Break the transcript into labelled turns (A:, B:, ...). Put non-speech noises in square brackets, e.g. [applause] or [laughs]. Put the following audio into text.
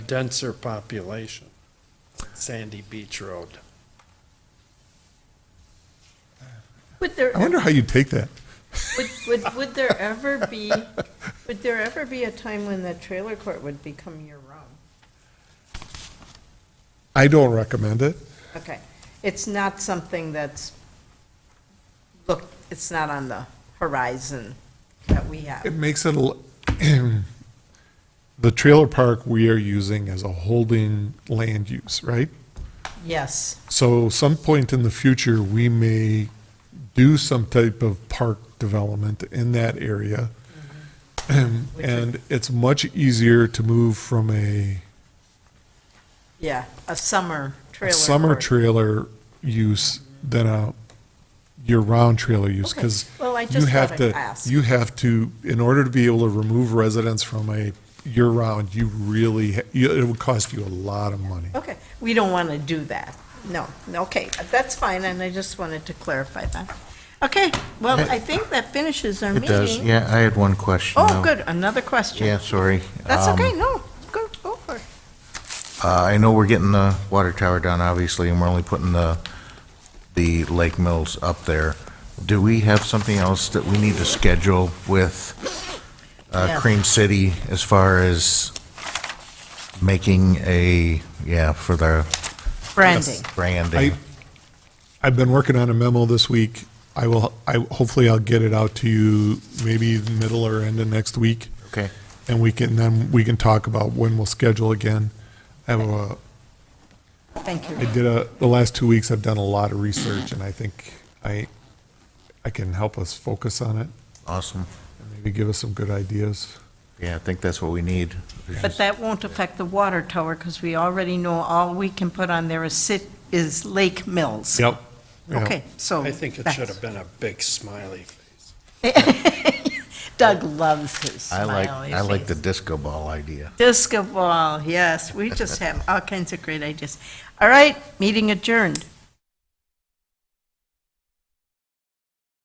A: denser population, Sandy Beach Road.
B: Would there,
C: I wonder how you take that.
B: would, would, would there ever be, would there ever be a time when the trailer court would become your own?
C: I don't recommend it.
B: Okay, it's not something that's, look, it's not on the horizon that we
C: It
B: have.
C: makes it, l- [clears throat] the trailer park we are using as a holding land use, right?
B: Yes,
C: So some point in the future, we may do some type of park development in that area. Mm-hmm. Um, And it's much easier to move from a
B: yeah, a summer trailer.
C: summer
B: court.
C: trailer use than a year-round trailer use,
B: Okay.
C: because
B: Well, I
C: you
B: just
C: have
B: thought I'd
C: to,
B: ask.
C: you have to, in order to be able to remove residents from a year-round, you really, ha- you- it would cost you a lot of money.
B: Okay, we don't want to do that. No, no, okay, that's fine, and I just wanted to clarify that. Okay, well, I think that finishes our
D: It
B: meeting.
D: does, yeah, I had one question.
B: Oh,
D: though.
B: good, another question.
D: Yeah, sorry.
B: That's
D: Um,
B: okay, no, go, go for it.
D: Uh, I know we're getting the water tower done, obviously, and we're only putting the, the Lake Mills up there. Do we have something else that we need to schedule with, uh,
B: Yeah.
D: Cream City as far as making a, yeah, for the
B: Branding.
D: branding?
C: I- I've been working on a memo this week. I will, I, hopefully I'll get it out to you maybe the middle or end of next week.
D: Okay.
C: And we can, then we can talk about when we'll schedule again. I have a,
B: Thank you.
C: I did a, the last two weeks, I've done a lot of research and I think I, I can help us focus on it
D: Awesome.
C: and maybe give us some good ideas.
D: Yeah, I think that's what we need. It's
B: But
D: just-
B: that won't affect the water tower, because we already know all we can put on there is sit, is Lake Mills.
C: Yep.
B: Okay, so.
A: I think it
B: that's-
A: should have been a big smiley.
B: [laughs] Doug loves his
D: I like,
B: smiley
D: I like the
B: face.
D: disco ball idea.
B: Disco ball, yes, we just have all kinds of great ideas. All right, meeting adjourned.